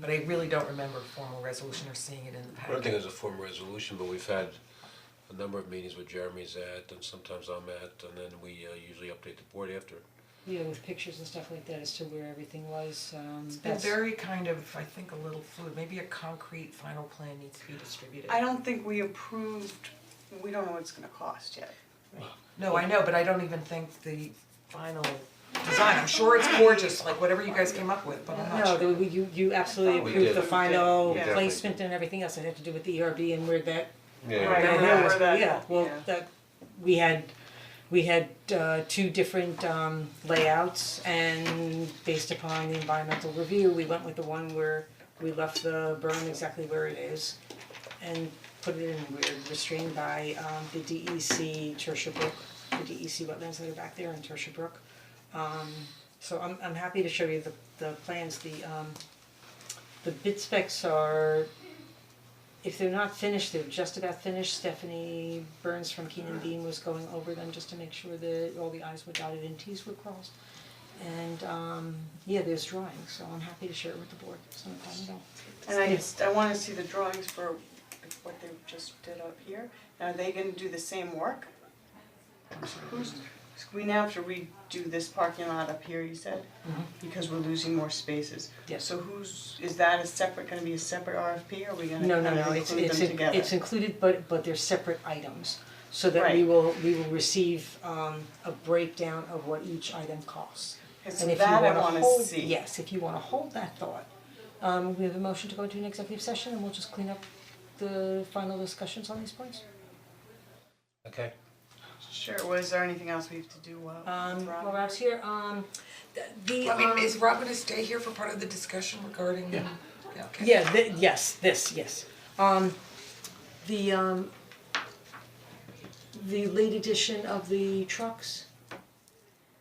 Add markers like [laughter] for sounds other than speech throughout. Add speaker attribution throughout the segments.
Speaker 1: but I really don't remember a formal resolution or seeing it in the
Speaker 2: I don't think
Speaker 1: packet.
Speaker 2: there's a formal resolution, but we've had a number of meetings with Jeremy's at, and sometimes I'm at, and then we uh, usually update the board after.
Speaker 3: Yeah, with pictures and stuff like that as to where everything was, um,
Speaker 1: It's been
Speaker 3: that's,
Speaker 1: very kind of, I think, a little fluid, maybe a concrete final plan needs to be distributed.
Speaker 4: I don't think we approved, we don't know what it's gonna cost yet.
Speaker 1: No, I know, but I don't even think the final design, I'm sure it's gorgeous, like whatever you guys came up with, but I'm not
Speaker 3: no,
Speaker 1: sure.
Speaker 3: the- we- you, you absolutely
Speaker 4: We
Speaker 3: approved
Speaker 2: did.
Speaker 3: the
Speaker 2: We
Speaker 3: final
Speaker 4: did. Yeah.
Speaker 3: placement and everything else, it had to do with the ERB and where that,
Speaker 4: Right,
Speaker 3: that
Speaker 4: remember
Speaker 3: was-
Speaker 4: that,
Speaker 3: yeah, well,
Speaker 4: yeah.
Speaker 3: that, we had, we had, uh, two different, um, layouts and based upon the environmental review, we went with the one where we left the berm exactly where it is and put it in, we're restrained by, um, the DEC Tertia Brook, the DEC wetlands that are back there in Tertia Brook. Um, So I'm I'm happy to show you the the plans, the um the bid specs are if they're not finished, they're just about finished, Stephanie Burns from Keenan Bean was going over them just to make sure that all the i's were dotted and t's were crossed. And um yeah, there's drawings, so I'm happy to share it with the board, it's not a problem at all.
Speaker 4: And I just, I wanna see the drawings for what they just did up here, are they gonna do the same work? Who's, we now have to redo this parking lot up here, you said? Because we're losing more spaces.
Speaker 3: Mm-hmm. Yes.
Speaker 4: So who's, is that a separate, gonna be a separate RFP, or are we gonna
Speaker 3: No, no,
Speaker 4: kind of
Speaker 3: no, it's
Speaker 4: include
Speaker 3: it's
Speaker 4: them
Speaker 3: in-
Speaker 4: together?
Speaker 3: it's included, but but they're separate items. So that we
Speaker 4: Right.
Speaker 3: will we will receive um a breakdown of what each item costs.
Speaker 4: Okay, so
Speaker 3: And if you
Speaker 4: that I
Speaker 3: wanna
Speaker 4: wanna
Speaker 3: hold,
Speaker 4: see.
Speaker 3: yes, if you wanna hold that thought, um we have a motion to go into an executive session and we'll just clean up the final discussions on these points.
Speaker 2: Okay.
Speaker 4: Sure, was there anything else we have to do while
Speaker 3: Um
Speaker 4: Rob?
Speaker 3: while Rob's here, um th- the
Speaker 1: I mean,
Speaker 3: um
Speaker 1: is Rob gonna stay here for part of the discussion regarding, yeah, okay.
Speaker 3: yeah, th- yes, this, yes. Um the um the late edition of the trucks,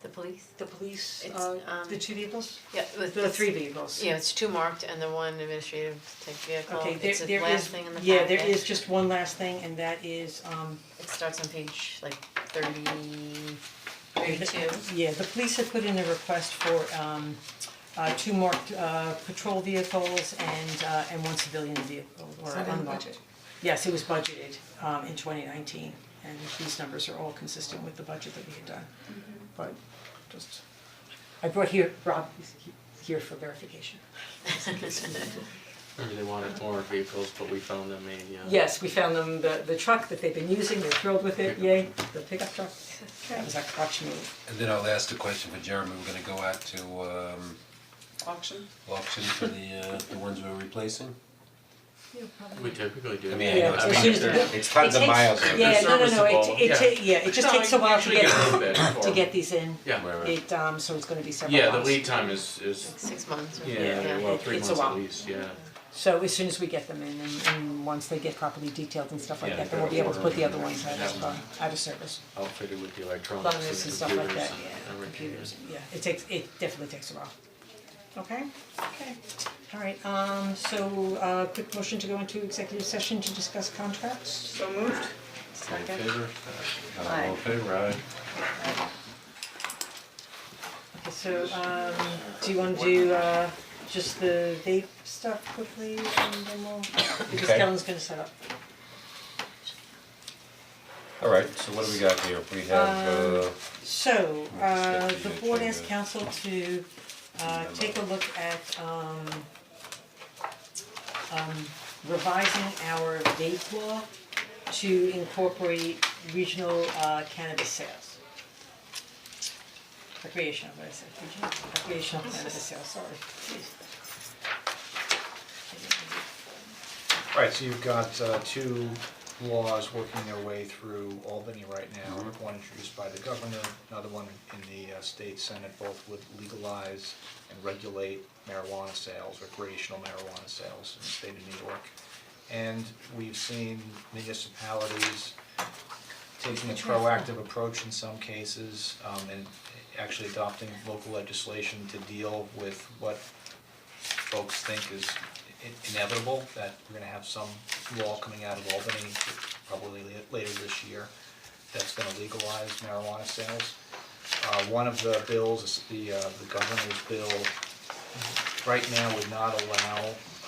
Speaker 5: The police?
Speaker 3: The police,
Speaker 5: It's,
Speaker 3: uh,
Speaker 5: um,
Speaker 3: the two vehicles?
Speaker 5: Yeah, with
Speaker 3: The three vehicles.
Speaker 5: Yeah, it's two marked and the one administrative type vehicle,
Speaker 3: Okay,
Speaker 5: it's
Speaker 3: there
Speaker 5: the
Speaker 3: there
Speaker 5: last
Speaker 3: is,
Speaker 5: thing in the packet.
Speaker 3: yeah, there is just one last thing and that is, um,
Speaker 5: It starts on page like thirty,
Speaker 3: the- [laughs]
Speaker 5: thirty-two.
Speaker 3: yeah, the police have put in a request for um uh two marked uh patrol vehicles and uh and one civilian vehicle or
Speaker 1: Is that in the
Speaker 3: unmarked.
Speaker 1: budget?
Speaker 3: Yes, it was budgeted um in twenty nineteen and these numbers are all consistent with the budget that we had done. But just, I brought here, Rob is he- here for verification.
Speaker 6: They wanted more vehicles, but we found them a, uh.
Speaker 3: Yes, we found them, the, the truck that they've been using, they're thrilled with it, yay, the pickup truck. That was our crutch move.
Speaker 2: And then I'll ask the question for Jeremy, we're gonna go out to um
Speaker 4: Auction?
Speaker 2: auction for the uh the ones we're replacing?
Speaker 6: We typically do.
Speaker 2: I mean, I know
Speaker 3: Yeah,
Speaker 2: it's
Speaker 3: as
Speaker 2: been-
Speaker 3: soon as
Speaker 6: they're-
Speaker 2: it's tons of
Speaker 3: It takes-
Speaker 2: miles. out there.
Speaker 3: Yeah, no, no, no,
Speaker 6: serviceable,
Speaker 3: it, it, ta-
Speaker 6: yeah.
Speaker 3: yeah, it just takes a while to
Speaker 6: Usually get a
Speaker 3: get,
Speaker 6: little bit for
Speaker 3: to
Speaker 6: them.
Speaker 3: get these in.
Speaker 6: Yeah,
Speaker 2: Right, right.
Speaker 3: It, um, so it's gonna be several
Speaker 6: yeah,
Speaker 3: months.
Speaker 6: the lead time is, is,
Speaker 5: Six months or
Speaker 6: yeah, well,
Speaker 3: it-
Speaker 6: three
Speaker 3: it's
Speaker 6: months
Speaker 3: a
Speaker 6: at
Speaker 3: while.
Speaker 6: least, yeah.
Speaker 3: So as soon as we get them in and, and once they get properly detailed and stuff like
Speaker 6: Yeah,
Speaker 3: that, then we'll be able to put the other ones out
Speaker 6: that
Speaker 3: of, uh,
Speaker 6: one.
Speaker 3: out of service.
Speaker 6: Outfitted with the
Speaker 3: Loaders
Speaker 6: electronics
Speaker 3: and
Speaker 6: and
Speaker 3: stuff like
Speaker 6: computers
Speaker 3: that,
Speaker 6: and
Speaker 3: yeah,
Speaker 6: everything.
Speaker 3: computers, yeah, it takes, it definitely takes a while.
Speaker 4: Okay.
Speaker 3: Okay, alright, um, so, uh, quick motion to go into executive session to discuss contracts?
Speaker 4: So moved.
Speaker 2: All in favor? Uh,
Speaker 4: Aye.
Speaker 2: All in favor, aye.
Speaker 3: Okay, so, um, do you wanna do, uh, just the vape stuff quickly and then we'll, because
Speaker 2: Okay.
Speaker 3: Kellen's gonna set up.
Speaker 2: Alright, so what do we got here? We have uh
Speaker 3: Um, So, uh,
Speaker 2: Let's
Speaker 3: the
Speaker 2: get the
Speaker 3: board asked
Speaker 2: agenda.
Speaker 3: council to, uh, take a look at, um, um, revising our vape law to incorporate regional, uh, cannabis sales. Recreational, what did I say, regional, recreational cannabis sales, sorry,
Speaker 7: Right, so you've got uh, two laws working their way through Albany right now. One introduced by the governor, another one in the uh, state senate, both would legalize and regulate marijuana sales, recreational marijuana sales in the state of New York. And we've seen municipalities taking a proactive approach in some cases, um, and actually adopting local legislation to deal with what folks think is i- inevitable, that we're gonna have some law coming out of Albany, probably la- later this year, that's gonna legalize marijuana sales. Uh, one of the bills, is the, uh, the governor's bill, right now would not allow